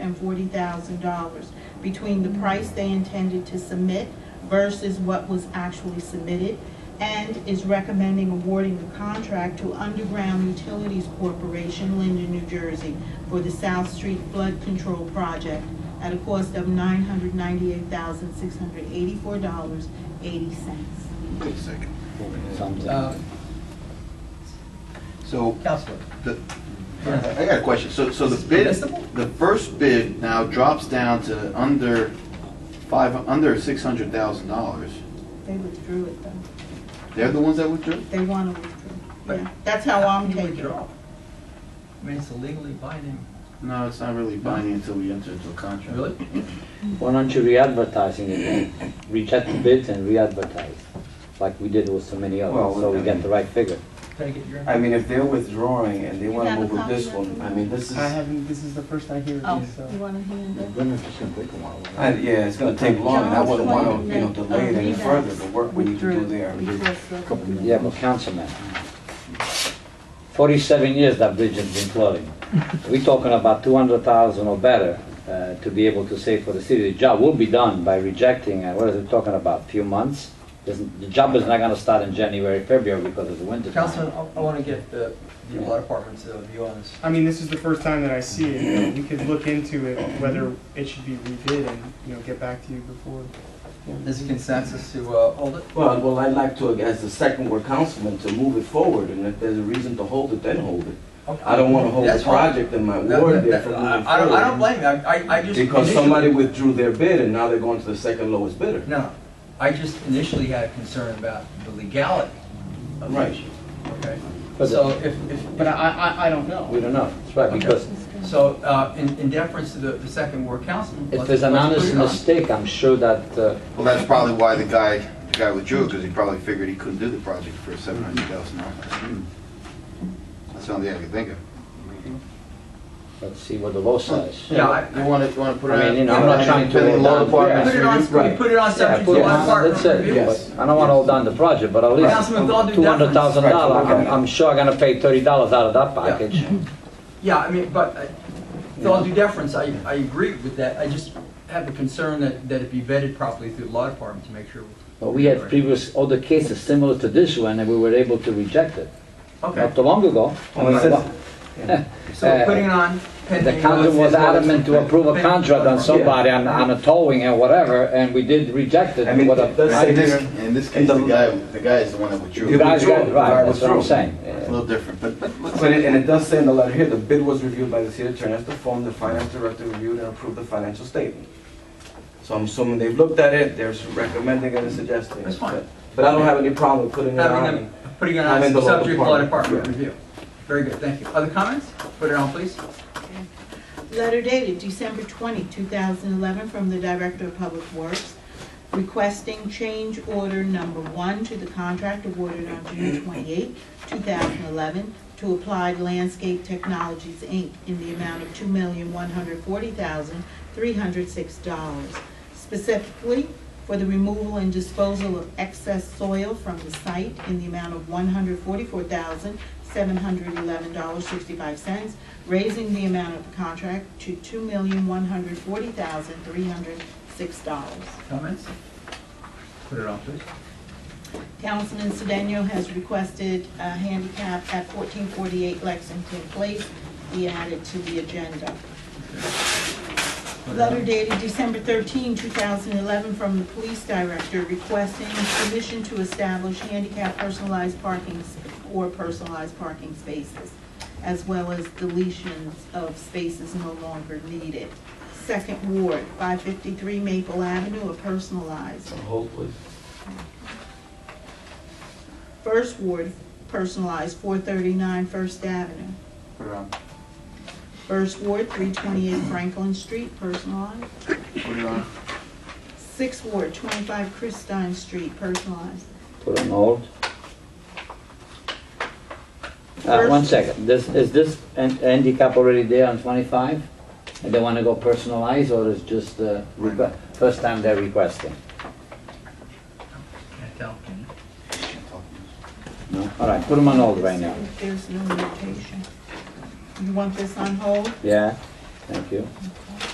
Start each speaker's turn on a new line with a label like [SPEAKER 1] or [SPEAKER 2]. [SPEAKER 1] and forty thousand dollars between the price they intended to submit versus what was actually submitted, and is recommending awarding the contract to Underground Utilities Corporation, Linden, New Jersey, for the South Street Flood Control Project at a cost of nine hundred ninety-eight thousand, six hundred eighty-four dollars, eighty cents.
[SPEAKER 2] Second.
[SPEAKER 3] Uh,
[SPEAKER 2] So,
[SPEAKER 3] Counselor,
[SPEAKER 2] the, I got a question. So, so the bid,
[SPEAKER 3] Permissible?
[SPEAKER 2] the first bid now drops down to under five, under six hundred thousand dollars.
[SPEAKER 1] They withdrew it though.
[SPEAKER 2] They're the ones that withdrew?
[SPEAKER 1] They want to withdraw.
[SPEAKER 3] But
[SPEAKER 1] Yeah, that's how I'm
[SPEAKER 3] you
[SPEAKER 1] taking it.
[SPEAKER 3] withdraw. I mean, it's a legally binding.
[SPEAKER 2] No, it's not really binding until we enter into a contract.
[SPEAKER 3] Really?
[SPEAKER 4] Why don't you re-advertising it then? Reject the bids and re-advertise, like we did with so many
[SPEAKER 5] Well,
[SPEAKER 4] others, so we
[SPEAKER 5] I
[SPEAKER 4] get
[SPEAKER 5] mean-
[SPEAKER 4] the right figure.
[SPEAKER 3] Can I get your?
[SPEAKER 5] I mean, if they're withdrawing and they
[SPEAKER 1] You
[SPEAKER 5] want
[SPEAKER 1] have
[SPEAKER 5] to
[SPEAKER 1] a
[SPEAKER 5] move with
[SPEAKER 1] copy
[SPEAKER 5] this
[SPEAKER 1] of
[SPEAKER 5] one,
[SPEAKER 1] it?
[SPEAKER 5] I mean, this is,
[SPEAKER 6] I haven't, this is the first I hear of
[SPEAKER 1] Oh,
[SPEAKER 6] these, so.
[SPEAKER 1] you want to hand it?
[SPEAKER 5] I- yeah, it's gonna take long, and I wouldn't want to, you know, delay it any further, the work we need to do there.
[SPEAKER 1] uh,
[SPEAKER 4] Yeah, but councilman, forty-seven years that bridge has been flooding. We're talking about two hundred thousand or better uh, to be able to save for the city. The job will be done by rejecting, and what is it talking about, few months? Doesn't- The job is not gonna start in January, February because of the winter time.
[SPEAKER 3] Councilman, I, I wanna get the, the law department's uh, view on this.
[SPEAKER 6] I mean, this is the first time that I see it, we could look into it, whether it should be rebid and, you know, get back to you before.
[SPEAKER 3] There's a consensus to, uh, hold it?
[SPEAKER 5] Well, well, I'd like to, as the second word councilman, to move it forward, and if there's a reason to hold it, then hold it. I don't want to hold
[SPEAKER 3] That's
[SPEAKER 5] the
[SPEAKER 3] fine.
[SPEAKER 5] project in my
[SPEAKER 3] That-
[SPEAKER 5] ward there
[SPEAKER 3] that-
[SPEAKER 5] for
[SPEAKER 3] that-
[SPEAKER 5] moving
[SPEAKER 3] I
[SPEAKER 5] forward.
[SPEAKER 3] I don't, I don't blame you, I, I- I just.
[SPEAKER 5] Because somebody
[SPEAKER 3] initially-
[SPEAKER 5] withdrew their bid, and now they're going to the second lowest bidder.
[SPEAKER 3] No, I just initially had a concern about the legality of the
[SPEAKER 5] Right.
[SPEAKER 3] issue, okay?
[SPEAKER 4] But-
[SPEAKER 3] So if, if.
[SPEAKER 6] But I, I, I don't know.
[SPEAKER 4] We don't know, that's right,
[SPEAKER 3] Okay.
[SPEAKER 4] because
[SPEAKER 3] So, uh, in, in deference to the, the second ward councilman.
[SPEAKER 4] if
[SPEAKER 3] let's-
[SPEAKER 4] there's an
[SPEAKER 3] let's put
[SPEAKER 4] honest
[SPEAKER 3] it on.
[SPEAKER 4] mistake, I'm sure that uh,
[SPEAKER 2] Well, that's probably why the guy, the guy withdrew, because he probably figured he couldn't do the project for seven hundred thousand dollars. That's the only thing I can think of.
[SPEAKER 4] Let's see what the law says.
[SPEAKER 3] Yeah, I-
[SPEAKER 2] You wanna, you wanna put it
[SPEAKER 4] I
[SPEAKER 2] out?
[SPEAKER 4] mean, you know, I'm not trying to
[SPEAKER 2] Depending on the law
[SPEAKER 4] hold down-
[SPEAKER 2] department.
[SPEAKER 3] Put it on, we
[SPEAKER 4] Right.
[SPEAKER 3] put it on subject to
[SPEAKER 4] Yeah,
[SPEAKER 3] law
[SPEAKER 4] That's
[SPEAKER 3] department
[SPEAKER 4] it,
[SPEAKER 3] review.
[SPEAKER 5] Yes.
[SPEAKER 4] but I don't wanna hold down the project, but at least
[SPEAKER 3] Councilman, with all due
[SPEAKER 4] two hundred
[SPEAKER 3] deference,
[SPEAKER 4] thousand dollars, I'm, I'm sure I'm gonna pay thirty dollars out of that
[SPEAKER 3] Yeah.
[SPEAKER 4] package.
[SPEAKER 3] yeah, I mean, but, uh, with all due deference, I, I agree with that, I just have a concern that, that it be vetted properly through the law department to make sure.
[SPEAKER 4] But we had previous, other cases similar to this one, and we were able to reject it,
[SPEAKER 3] Okay,
[SPEAKER 4] not too long ago.
[SPEAKER 5] Well, it says-
[SPEAKER 3] so putting it on
[SPEAKER 4] uh, The
[SPEAKER 3] pending.
[SPEAKER 4] council was adamant to approve a contract on somebody, on, on a towing and whatever, and we did reject it.
[SPEAKER 5] I mean,
[SPEAKER 4] What a-
[SPEAKER 5] it does
[SPEAKER 2] In
[SPEAKER 5] say
[SPEAKER 2] this,
[SPEAKER 5] here-
[SPEAKER 2] in this case, the guy, the guy is the one that
[SPEAKER 4] You
[SPEAKER 2] withdrew.
[SPEAKER 5] Yeah.
[SPEAKER 4] guys,
[SPEAKER 5] withdrew.
[SPEAKER 4] got it right,
[SPEAKER 5] Right,
[SPEAKER 4] that's what I'm
[SPEAKER 5] withdrew.
[SPEAKER 4] saying.
[SPEAKER 2] It's a
[SPEAKER 4] Yeah.
[SPEAKER 2] little different, but, but let's.
[SPEAKER 5] But it, and it does say in the letter here, the bid was reviewed by the city attorney as the form, the finance director reviewed and approved the financial statement. So I'm assuming they've looked at it, they're recommending and suggesting.
[SPEAKER 3] That's fine.
[SPEAKER 5] But I don't have any problem with putting it
[SPEAKER 3] Having
[SPEAKER 5] on.
[SPEAKER 3] them, putting it
[SPEAKER 5] I'm
[SPEAKER 3] on
[SPEAKER 5] in the law
[SPEAKER 3] subject to law department
[SPEAKER 5] department.
[SPEAKER 3] review. Very good, thank you. Other comments? Put it on, please.
[SPEAKER 1] Letter dated December 20, 2011, from the Director of Public Works requesting change order number one to the contract awarded on June 28, 2011, to Applied Landscape Technologies, Inc., in the amount of $2,140,306, specifically for the removal and disposal of excess soil from the site in the amount of $144,711.65, raising the amount of the contract to $2,140,306.
[SPEAKER 3] Comments? Put it on, please.
[SPEAKER 1] Councilman Sedano has requested a handicap at 1448 Lexington Place be added to the agenda.
[SPEAKER 3] Put it on.
[SPEAKER 1] Letter dated December 13, 2011, from the police director requesting permission to establish handicap personalized parking s- or personalized parking spaces, as well as deletions of spaces no longer needed. Second Ward, 553 Maple Avenue, a personalized.
[SPEAKER 5] Hold, please.
[SPEAKER 1] First Ward, personalized, 439 First Avenue.
[SPEAKER 2] Put it on,
[SPEAKER 1] First Ward, 328 Franklin Street, personalized.
[SPEAKER 2] put it on.
[SPEAKER 1] Sixth Ward, 25 Christine Street, personalized.
[SPEAKER 4] Put on hold. Uh, one second, this, is this han- handicap already there on twenty-five? And they wanna go personalized, or is just, uh, requ- first time they're requesting?
[SPEAKER 3] Can't tell.
[SPEAKER 4] No? All right, put them on hold right now.
[SPEAKER 1] There's no notation. You want this on hold?
[SPEAKER 4] Yeah, thank you.